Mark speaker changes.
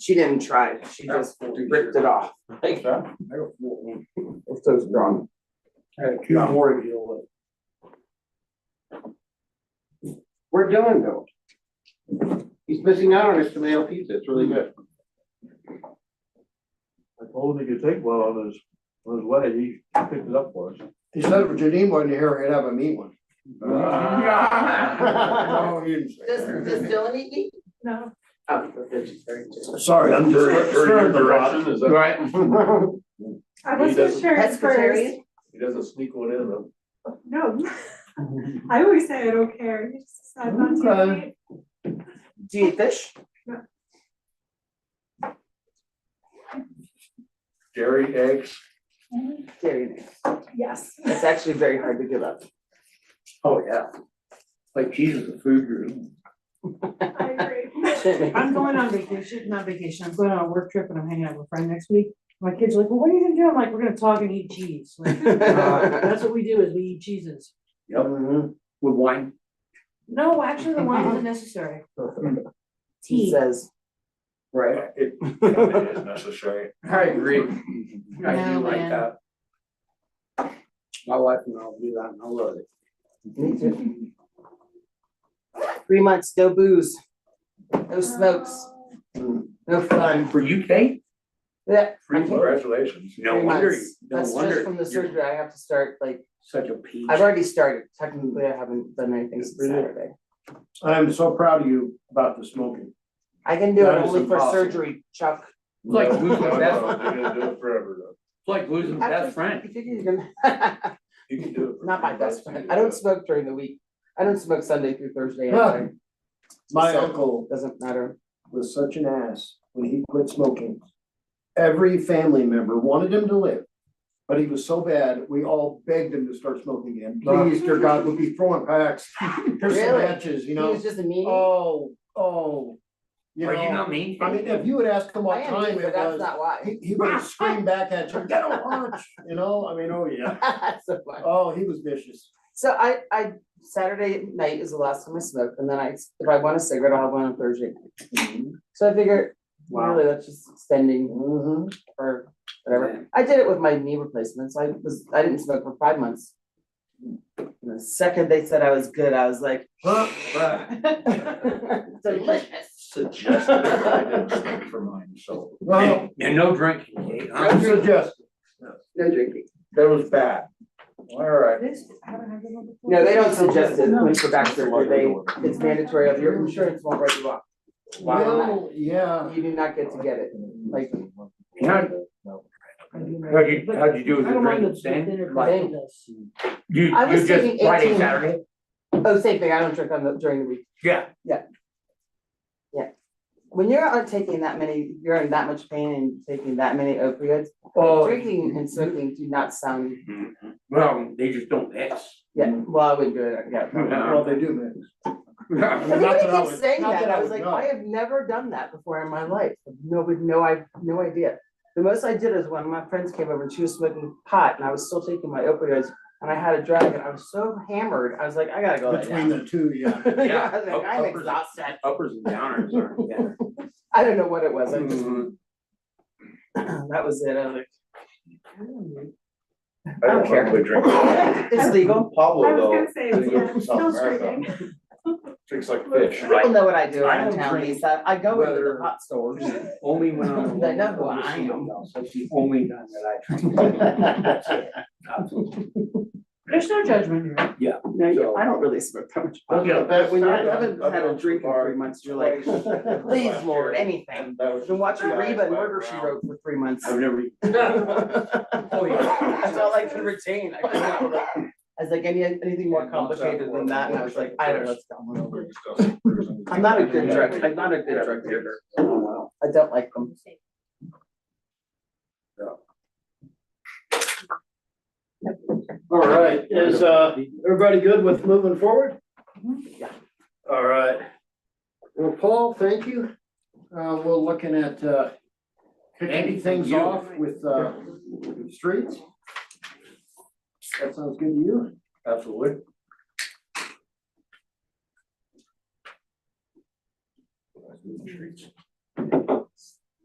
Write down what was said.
Speaker 1: She didn't try, it.
Speaker 2: Oh.
Speaker 1: she just ripped it off.
Speaker 3: Thanks, John.
Speaker 1: It's so strong.
Speaker 3: John,
Speaker 2: We're doing though. He's missing out on his tomato pizza, it's really good.
Speaker 4: I told him he could take one on his, on his way, he picked it up for us.
Speaker 5: He said, if you need one here, he'd have a meat one. No, he didn't say
Speaker 1: Does,
Speaker 5: that.
Speaker 1: does Dylan eat meat?
Speaker 6: No.
Speaker 1: Oh, okay, she's very good.
Speaker 5: Sorry, I'm just. stirring the pot.
Speaker 4: is
Speaker 2: Right.
Speaker 6: I
Speaker 4: He
Speaker 6: wasn't
Speaker 4: doesn't-
Speaker 6: sure at first.
Speaker 1: Pescatarian?
Speaker 4: he doesn't sneak one in though.
Speaker 6: No. I always say I don't care. You just decide not to.
Speaker 5: Okay.
Speaker 6: right?
Speaker 1: Do you eat fish?
Speaker 4: Dairy, eggs,
Speaker 1: Very nice.
Speaker 6: Yes.
Speaker 1: It's actually very hard to give up.
Speaker 2: Oh, yeah. Like Jesus, the food group.
Speaker 6: I agree.
Speaker 7: I'm going on vacation, not vacation, I'm going on a work trip and I'm hanging out with a friend next week. My kids are like, well, what are you gonna do? I'm like, we're gonna talk and eat cheese. Like, uh, That's what we do is we eat cheeses.
Speaker 2: Yep, with wine.
Speaker 7: No, actually, the wine isn't necessary.
Speaker 1: He
Speaker 7: Tea.
Speaker 1: says,
Speaker 2: Right.
Speaker 4: it, it is necessary.
Speaker 2: I agree. I do
Speaker 7: No,
Speaker 2: like uh,
Speaker 7: man.
Speaker 2: that. My wife and I'll do that and I love it.
Speaker 1: me too. Three months, no booze, no smokes, no fun.
Speaker 2: For you, Kate?
Speaker 1: Yeah. I can't-
Speaker 4: Congratulations.
Speaker 2: No
Speaker 1: three
Speaker 2: wonder,
Speaker 1: months.
Speaker 2: no
Speaker 1: That's
Speaker 2: wonder.
Speaker 1: just from the
Speaker 2: you're
Speaker 1: surgery, I have to start, like,
Speaker 2: Such a peach.
Speaker 1: I've already started, technically, I haven't done anything since
Speaker 5: Really?
Speaker 1: Saturday.
Speaker 5: I am so proud of you about the smoking.
Speaker 1: I can do it
Speaker 5: That is
Speaker 1: only for
Speaker 5: impossible.
Speaker 1: surgery, Chuck.
Speaker 2: Like
Speaker 4: No,
Speaker 2: losing
Speaker 4: no,
Speaker 2: a
Speaker 4: They're
Speaker 2: best,
Speaker 4: gonna do it forever though.
Speaker 2: like losing a best friend.
Speaker 4: You can do it. for
Speaker 1: Not my
Speaker 4: three
Speaker 1: best
Speaker 4: months.
Speaker 1: friend, I don't smoke during the week, I don't smoke Sunday through Thursday
Speaker 5: Huh.
Speaker 1: anyway,
Speaker 5: My
Speaker 1: So-
Speaker 5: uncle
Speaker 1: doesn't matter.
Speaker 5: was such an ass when he quit smoking. Every family member wanted him to live, but he was so bad, we all begged him to start smoking again. Please, dear God, we'll be throwing packs, here's some
Speaker 1: Really?
Speaker 5: matches, you
Speaker 1: He
Speaker 5: know?
Speaker 1: was just a meanie,
Speaker 5: Oh, oh, you
Speaker 2: Are you
Speaker 5: know,
Speaker 2: not mean?
Speaker 5: I mean, if you would ask him
Speaker 1: I
Speaker 5: what
Speaker 1: am,
Speaker 5: time
Speaker 1: mean, but
Speaker 5: it
Speaker 1: that's
Speaker 5: was,
Speaker 1: not why.
Speaker 5: he, he would scream back at you, get a lunch, you know, I mean, oh yeah,
Speaker 1: So why.
Speaker 5: oh, he was vicious.
Speaker 1: So I, I, Saturday night is the last time I smoke, and then I, if I want a cigarette, I'll have one on Thursday. night.
Speaker 5: Mm-hmm.
Speaker 1: So I figure, really, that's just extending
Speaker 5: Mhm.
Speaker 1: or whatever. I did it with my knee replacement, so I was, I didn't smoke for five months. And the second they said I was good, I was like, delicious.
Speaker 4: Suggested, but I didn't smoke for mine, so.
Speaker 5: Well,
Speaker 2: And no drinking, Kate, huh?
Speaker 5: I'm suggesting,
Speaker 1: No drinking.
Speaker 2: That was bad.
Speaker 4: All right.
Speaker 6: Uh,
Speaker 7: This, I haven't had this one before.
Speaker 1: No, they don't suggest it
Speaker 7: No.
Speaker 1: when for back surgery. They, it's mandatory. If Your insurance won't write you off.
Speaker 5: well, yeah.
Speaker 1: You do not get to get it. Like,
Speaker 7: I do remember.
Speaker 2: How'd you,
Speaker 7: But
Speaker 2: how'd you do
Speaker 7: I
Speaker 2: with your
Speaker 7: don't mind
Speaker 2: drinking,
Speaker 7: the
Speaker 2: Stan?
Speaker 7: thinner
Speaker 2: Like,
Speaker 7: version of this.
Speaker 2: You,
Speaker 1: I was
Speaker 2: you just
Speaker 1: thinking
Speaker 2: Friday,
Speaker 1: 18.
Speaker 2: Saturday?
Speaker 1: oh, same thing. I don't drink on the, during the week.
Speaker 2: Yeah.
Speaker 1: when you're out taking that many, you're in that much pain and taking that many opioids,
Speaker 2: Oh,
Speaker 1: drinking and smoking do not sound,
Speaker 2: well, they just don't mix.
Speaker 1: yeah, well, I wouldn't do it, yeah.
Speaker 5: Well, they do, man.
Speaker 1: I
Speaker 5: Not
Speaker 1: think
Speaker 5: that I
Speaker 1: I
Speaker 5: would-
Speaker 1: keep saying
Speaker 5: not
Speaker 1: that,
Speaker 5: that I
Speaker 1: I was
Speaker 5: would
Speaker 1: like,
Speaker 5: know.
Speaker 1: I have never done that before in my life, no, with no, I, no idea. The most I did is when my friends came over and she was smoking pot and I was still taking my opioids and I had a drag and I was so hammered, I was like, I gotta go lay
Speaker 5: Between
Speaker 1: down.
Speaker 5: the two, yeah.
Speaker 1: Yeah, I was like,
Speaker 2: up-
Speaker 1: I'm
Speaker 2: uppers-
Speaker 1: exhausted,
Speaker 2: Uppers and downers are together.
Speaker 1: I don't know what it was, I just, that was it, I was like,
Speaker 4: I
Speaker 1: don't
Speaker 4: don't
Speaker 1: care.
Speaker 4: normally drink. I
Speaker 1: it's legal,
Speaker 6: I
Speaker 4: Pablo
Speaker 6: was
Speaker 4: though,
Speaker 6: gonna say,
Speaker 4: They go
Speaker 6: yeah,
Speaker 4: to
Speaker 6: still
Speaker 4: South America.
Speaker 6: screaming.
Speaker 4: drinks like fish.
Speaker 1: people know what I do
Speaker 2: I
Speaker 1: around
Speaker 2: don't
Speaker 1: town,
Speaker 2: drink
Speaker 1: Lisa, I go into the
Speaker 2: whether-
Speaker 1: pot stores.
Speaker 2: Only when I'm.
Speaker 1: They know who I am.
Speaker 2: That's the only time that I drink.
Speaker 7: There's no judgment here.
Speaker 1: No, you-
Speaker 2: So-
Speaker 1: I don't really smoke that much.
Speaker 2: I'll get a
Speaker 1: But when you
Speaker 2: best-
Speaker 1: haven't
Speaker 4: I've
Speaker 1: had a
Speaker 4: been to
Speaker 1: drink in
Speaker 4: bar
Speaker 1: three months, you're like,
Speaker 4: twice.
Speaker 1: please, Lord, anything.
Speaker 4: And that was
Speaker 1: I've been watching
Speaker 4: just-
Speaker 1: Reba and Murder She Wrote for three months.
Speaker 2: I've never.
Speaker 1: Oh, yeah. That's all I can retain. I could not like- I was like, any, anything more
Speaker 4: And once I
Speaker 1: complicated than
Speaker 4: was-
Speaker 1: that, and I was like, I don't know. it's dumb. I'm
Speaker 4: I'm
Speaker 1: not a good drug, I'm not a good drug dealer.
Speaker 2: Oh,
Speaker 1: I don't like them.
Speaker 5: All right, is, uh, everybody good with moving forward?
Speaker 1: Yeah.
Speaker 5: All right. Well, Paul, thank you. Uh, we're looking at, uh, kicking things off with, uh, streets. That sounds good to you?
Speaker 4: Absolutely.